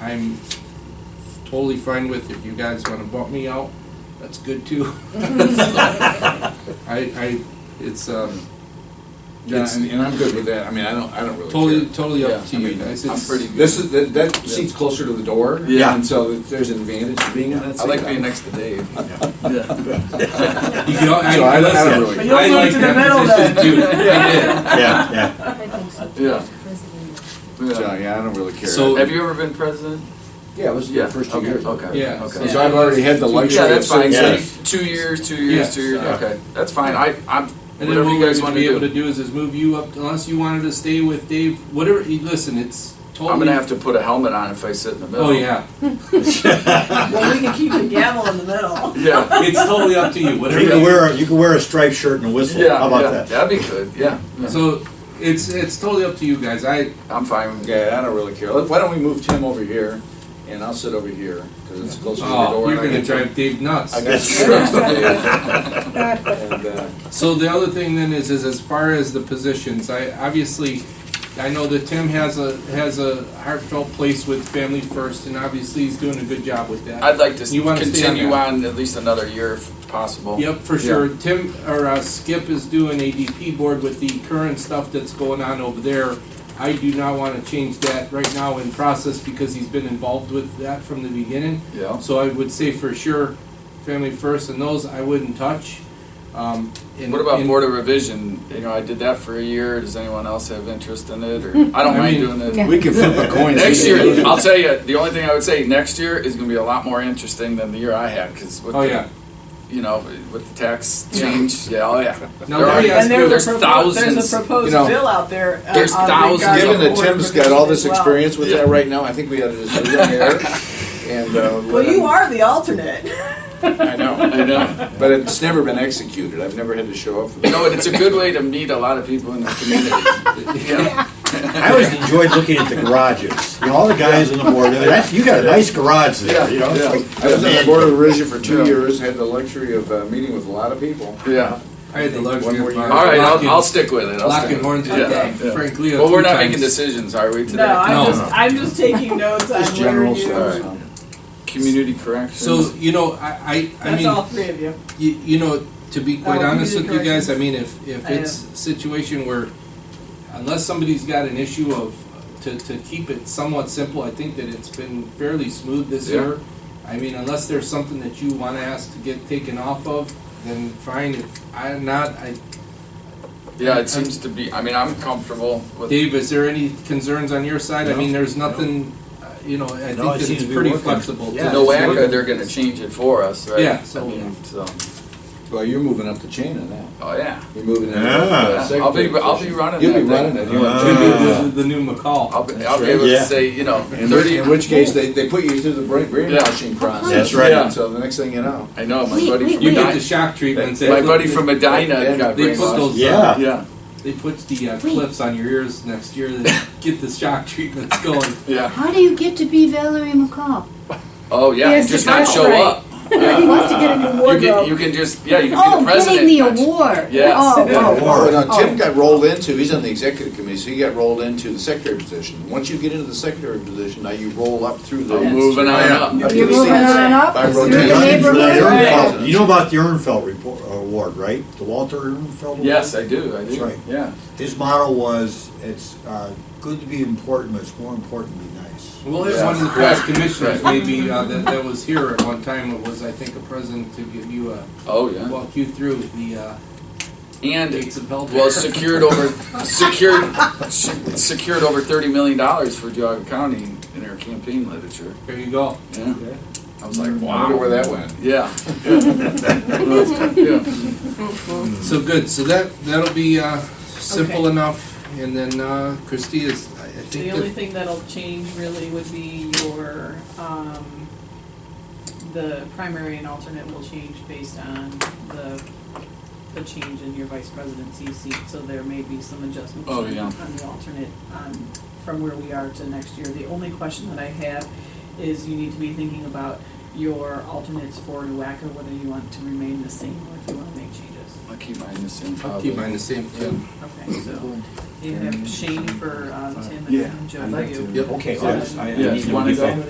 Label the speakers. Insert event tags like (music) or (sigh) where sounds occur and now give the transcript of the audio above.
Speaker 1: I'm totally fine with if you guys wanna bump me out, that's good too. I, I, it's, um,
Speaker 2: Yeah,
Speaker 1: it's
Speaker 2: and, and I'm good with that. I mean, I don't, I don't really
Speaker 1: totally,
Speaker 2: care.
Speaker 1: totally
Speaker 3: Yeah,
Speaker 1: up to
Speaker 2: I
Speaker 1: you
Speaker 2: mean,
Speaker 1: guys.
Speaker 3: I'm
Speaker 1: It's- (laughs)
Speaker 3: pretty-
Speaker 2: This is, that, that seat's closer to the door.
Speaker 3: Yeah.
Speaker 2: And so there's an advantage to being on that seat.
Speaker 3: I like being next to Dave.
Speaker 1: You can, al-
Speaker 2: So
Speaker 1: I,
Speaker 2: I don't- I don't
Speaker 1: listen, I
Speaker 2: really-
Speaker 1: like
Speaker 4: You'll move to the middle
Speaker 1: that position
Speaker 4: (laughs) then.
Speaker 1: too, I
Speaker 5: Yeah,
Speaker 3: (laughs)
Speaker 5: yeah.
Speaker 6: I think so.
Speaker 3: Yeah.
Speaker 6: President.
Speaker 2: So,
Speaker 3: Yeah.
Speaker 2: yeah, I don't really care.
Speaker 1: So-
Speaker 3: Have you ever been president?
Speaker 2: Yeah, Oh, it was the
Speaker 3: Yeah.
Speaker 2: first two
Speaker 3: okay,
Speaker 2: years.
Speaker 3: Okay.
Speaker 1: Yeah,
Speaker 3: Okay.
Speaker 1: so-
Speaker 2: So I've already had the luxury
Speaker 3: Yeah,
Speaker 2: of
Speaker 3: that's fine.
Speaker 2: sitting
Speaker 3: So
Speaker 2: there.
Speaker 5: Yeah.
Speaker 3: you- Two years, two
Speaker 1: Yeah.
Speaker 3: years, two years.
Speaker 1: Yeah.
Speaker 3: Okay, that's fine. I, I'm,
Speaker 1: did. And then
Speaker 3: whatever
Speaker 1: what
Speaker 3: you
Speaker 1: we're
Speaker 3: guys
Speaker 1: gonna
Speaker 3: want
Speaker 1: be able to
Speaker 3: to do.
Speaker 1: do is, is move you up, unless you wanted to stay with Dave, whatever, you- listen, it's totally.
Speaker 3: I'm gonna have to put a helmet on if I sit in the middle.
Speaker 1: Oh, yeah,
Speaker 4: Well, we can keep the gavel in the middle.
Speaker 3: (laughs) Yeah.
Speaker 1: it's totally up to you, whatever.
Speaker 5: You can wear, a- you can wear a striped shirt and a whistle.
Speaker 3: Yeah,
Speaker 5: How
Speaker 3: yeah.
Speaker 5: about that?
Speaker 3: That'd be good, yeah. yeah.
Speaker 1: So, it's, it's totally up to you guys, I,
Speaker 3: I'm fine. with-
Speaker 2: Yeah, I don't really care. Look, Why don't we move Tim over here and I'll sit over here because it's closer to the
Speaker 1: oh,
Speaker 2: door.
Speaker 1: you're
Speaker 2: and I
Speaker 1: gonna
Speaker 2: can-
Speaker 1: drive Dave nuts.
Speaker 2: I got screws to
Speaker 3: (laughs)
Speaker 2: do. (laughs) And, uh,
Speaker 1: So the other thing then is, is as far as the positions, I, obviously, I know that Tim has a, has a heartfelt place with Family First, and obviously he's doing a good job with that.
Speaker 3: I'd like to s-
Speaker 1: You wanna stay on
Speaker 3: continue
Speaker 1: that?
Speaker 3: on at least another year if possible.
Speaker 1: Yep, for sure. Tim, or uh, Skip is doing ADP board with the current stuff that's going on over there. I do not wanna change that right now in process because he's been involved with that from the beginning.
Speaker 3: Yeah.
Speaker 1: So I would say for sure, Family First and those I wouldn't touch. Um, and-
Speaker 3: What about
Speaker 1: and-
Speaker 3: board of revision? You know, I did that for a year. Does anyone else have interest in it? Or I don't
Speaker 1: I
Speaker 3: mind
Speaker 1: mean-
Speaker 3: doing it.
Speaker 2: We can flip
Speaker 5: (laughs)
Speaker 2: a coin.
Speaker 3: Next year, (laughs) I'll tell you, the only thing I would say, next year is gonna be a lot more interesting than the year I had, cause with
Speaker 1: Oh,
Speaker 3: the,
Speaker 1: yeah.
Speaker 3: you know, with the tax
Speaker 1: Yeah.
Speaker 3: change, yeah, oh, yeah.
Speaker 1: Now,
Speaker 3: They're
Speaker 1: let
Speaker 3: already-
Speaker 1: me ask
Speaker 4: And
Speaker 1: you-
Speaker 4: there's
Speaker 3: there's
Speaker 4: a proposed, there's
Speaker 3: thousands,
Speaker 4: a proposed
Speaker 2: you know,
Speaker 4: bill out there. uh,
Speaker 3: there's
Speaker 4: on
Speaker 3: thousands
Speaker 4: regarding
Speaker 3: of-
Speaker 2: Given that
Speaker 4: board
Speaker 2: Tim's got all this
Speaker 4: as well.
Speaker 2: experience with
Speaker 3: Yeah.
Speaker 2: that right now, I think we ought to just leave him here (laughs) and, uh. let
Speaker 4: Well,
Speaker 2: him-
Speaker 4: you are the alternate.
Speaker 2: I know,
Speaker 3: I know,
Speaker 2: but it's never been executed. I've never had to show (laughs) up for
Speaker 3: you
Speaker 2: that.
Speaker 3: know, and it's a good way to meet a lot of people in the community. You know,
Speaker 5: I always enjoyed looking at the garages. You know, all the guys on the board, I mean, that's, you got a nice garage there, you know? it's
Speaker 3: Yeah, yeah.
Speaker 5: like-
Speaker 2: I was on the board of Revision for two
Speaker 3: Yeah.
Speaker 2: years, had the luxury of uh, meeting with a lot of people.
Speaker 3: Yeah,
Speaker 1: I had the luxury
Speaker 2: One
Speaker 1: of.
Speaker 2: more year.
Speaker 3: all right,
Speaker 1: Lock
Speaker 3: I'll,
Speaker 1: in-
Speaker 3: I'll stick with it, I'll
Speaker 1: Lock
Speaker 3: stick
Speaker 1: and horns
Speaker 3: with
Speaker 1: with
Speaker 3: it. Yeah,
Speaker 1: Frank-
Speaker 3: yeah.
Speaker 1: Frank Leo.
Speaker 3: Well, we're
Speaker 1: three
Speaker 3: not
Speaker 1: times.
Speaker 3: making decisions, are we,
Speaker 4: No,
Speaker 3: today?
Speaker 1: No.
Speaker 4: I'm just, I'm just taking notes on
Speaker 2: Just
Speaker 4: where
Speaker 2: general
Speaker 4: you,
Speaker 2: stuff.
Speaker 3: Alright.
Speaker 2: so.
Speaker 3: Community corrections.
Speaker 1: So, you know, I, I, I
Speaker 4: that's all
Speaker 1: mean,
Speaker 4: three of you.
Speaker 1: you, you know, to be quite
Speaker 4: I'll
Speaker 1: honest
Speaker 4: give
Speaker 1: with
Speaker 4: you
Speaker 1: you guys,
Speaker 4: corrections.
Speaker 1: I mean, if, if
Speaker 4: I
Speaker 1: it's a situation where, unless somebody's got an issue of, to, to keep it somewhat simple, I think that it's been fairly smooth this
Speaker 3: Yeah.
Speaker 1: year. I mean, unless there's something that you wanna ask to get taken off of, then fine, if I'm not, I,
Speaker 3: Yeah, it seems to be, I mean, I'm comfortable with.
Speaker 1: Dave, is there any concerns on your side? I
Speaker 5: No.
Speaker 1: mean, there's nothing, uh, you know, I think
Speaker 5: No, it
Speaker 1: that
Speaker 5: seems
Speaker 1: it's
Speaker 5: to be
Speaker 1: pretty
Speaker 5: working.
Speaker 1: flexible. to
Speaker 3: To
Speaker 5: Yeah,
Speaker 1: the
Speaker 5: it's
Speaker 3: NOACA,
Speaker 5: working.
Speaker 3: they're gonna change it for us, right?
Speaker 1: Yeah, so-
Speaker 3: I mean, so,
Speaker 2: Well, you're moving up the chain on that.
Speaker 3: oh, yeah.
Speaker 2: You're moving into the
Speaker 5: Yeah.
Speaker 3: Yeah, I'll be,
Speaker 2: secretary
Speaker 3: I'll be
Speaker 2: position.
Speaker 3: running
Speaker 2: You'll
Speaker 3: that
Speaker 2: be
Speaker 3: thing. Uh-huh.
Speaker 2: running it. You want
Speaker 1: Should be
Speaker 2: to-
Speaker 5: Ah.
Speaker 1: the, the new McCall.
Speaker 3: Uh, I'll be,
Speaker 2: That's
Speaker 3: I'll be
Speaker 2: right.
Speaker 3: able to
Speaker 5: Yeah.
Speaker 3: say, you know,
Speaker 2: In which,
Speaker 3: thirty.
Speaker 2: in which case, they, they put you through the brain- brainwashing process.
Speaker 5: That's right.
Speaker 3: Yeah.
Speaker 2: So the next thing you know.
Speaker 3: I know my
Speaker 6: Wait,
Speaker 3: buddy
Speaker 6: wait,
Speaker 3: from
Speaker 1: You get the
Speaker 3: Medina.
Speaker 1: shock treatment.
Speaker 3: My buddy from Medina
Speaker 2: They-
Speaker 3: got
Speaker 1: They put
Speaker 3: brainwashed.
Speaker 1: those.
Speaker 5: Yeah.
Speaker 3: Yeah,
Speaker 1: They put the uh, clips on your ears next year that get the shock treatments going.
Speaker 3: yeah.
Speaker 6: How do you get to be Valerie McCall?
Speaker 3: Oh
Speaker 6: He
Speaker 3: yeah,
Speaker 6: has
Speaker 3: just
Speaker 6: to
Speaker 3: not
Speaker 6: dress
Speaker 3: show
Speaker 6: right.
Speaker 3: up.
Speaker 6: he wants to get a new
Speaker 3: You
Speaker 6: wardrobe.
Speaker 3: can, you can just yeah, you can be
Speaker 6: oh,
Speaker 3: the president.
Speaker 6: getting the award.
Speaker 3: Yes.
Speaker 6: Oh,
Speaker 3: Yeah.
Speaker 6: wow.
Speaker 2: Oh, no, Tim
Speaker 6: Oh.
Speaker 2: got rolled into, he's on the executive committee, so he got rolled into the secretary position. Once you get into the secretary position, now you roll up through the.
Speaker 3: I'm moving on up.
Speaker 2: to the
Speaker 6: You're moving
Speaker 2: seats.
Speaker 6: on up
Speaker 2: By
Speaker 6: through
Speaker 2: rotation.
Speaker 6: the neighborhood.
Speaker 5: Ehrenfeld- You know about the Ehrenfeld report, uh, award, right? The Walter Ehrenfeld?
Speaker 3: Yes,
Speaker 5: Award?
Speaker 3: I do. I do.
Speaker 5: That's right.
Speaker 3: Yeah.
Speaker 5: His motto was, it's, uh, good to be important, but it's more important to be nice.
Speaker 1: (laughs) Well, it one of the past commissioners maybe uh, that, that was here at one time it was I think a president to give you a
Speaker 3: Oh yeah.
Speaker 1: walk you through the uh,
Speaker 3: And
Speaker 1: dates of health.
Speaker 3: well, secured over secured se- secured over thirty million dollars for Geauga County in our campaign literature.
Speaker 1: There you go.
Speaker 3: Yeah. I was like,
Speaker 2: I wonder where
Speaker 3: wow.
Speaker 2: that went.
Speaker 3: Yeah. (laughs) Yeah. yeah.
Speaker 1: So good. So that that'll be uh, simple
Speaker 4: Okay.
Speaker 1: enough. And then uh, Christie is. I, I think
Speaker 4: The
Speaker 1: that-
Speaker 4: only thing that'll change really would be your, um, the primary and alternate will change based on the, the change in your vice presidency seat, so there may be some adjustments
Speaker 3: Oh, yeah.
Speaker 4: on the alternate, um, from where we are to next year. The only question that I have is you need to be thinking about your alternates for NUACA, whether you want to remain the same or if you wanna make changes.
Speaker 3: I'll keep mine the same.
Speaker 1: I'll
Speaker 3: probably.
Speaker 1: keep mine the same
Speaker 3: Yeah.
Speaker 1: too.
Speaker 4: Okay, so you have Shane for, um, Tim and Joe for you.
Speaker 1: Yep.
Speaker 5: Okay,
Speaker 4: I- I
Speaker 3: Yeah, need you to wanna be go?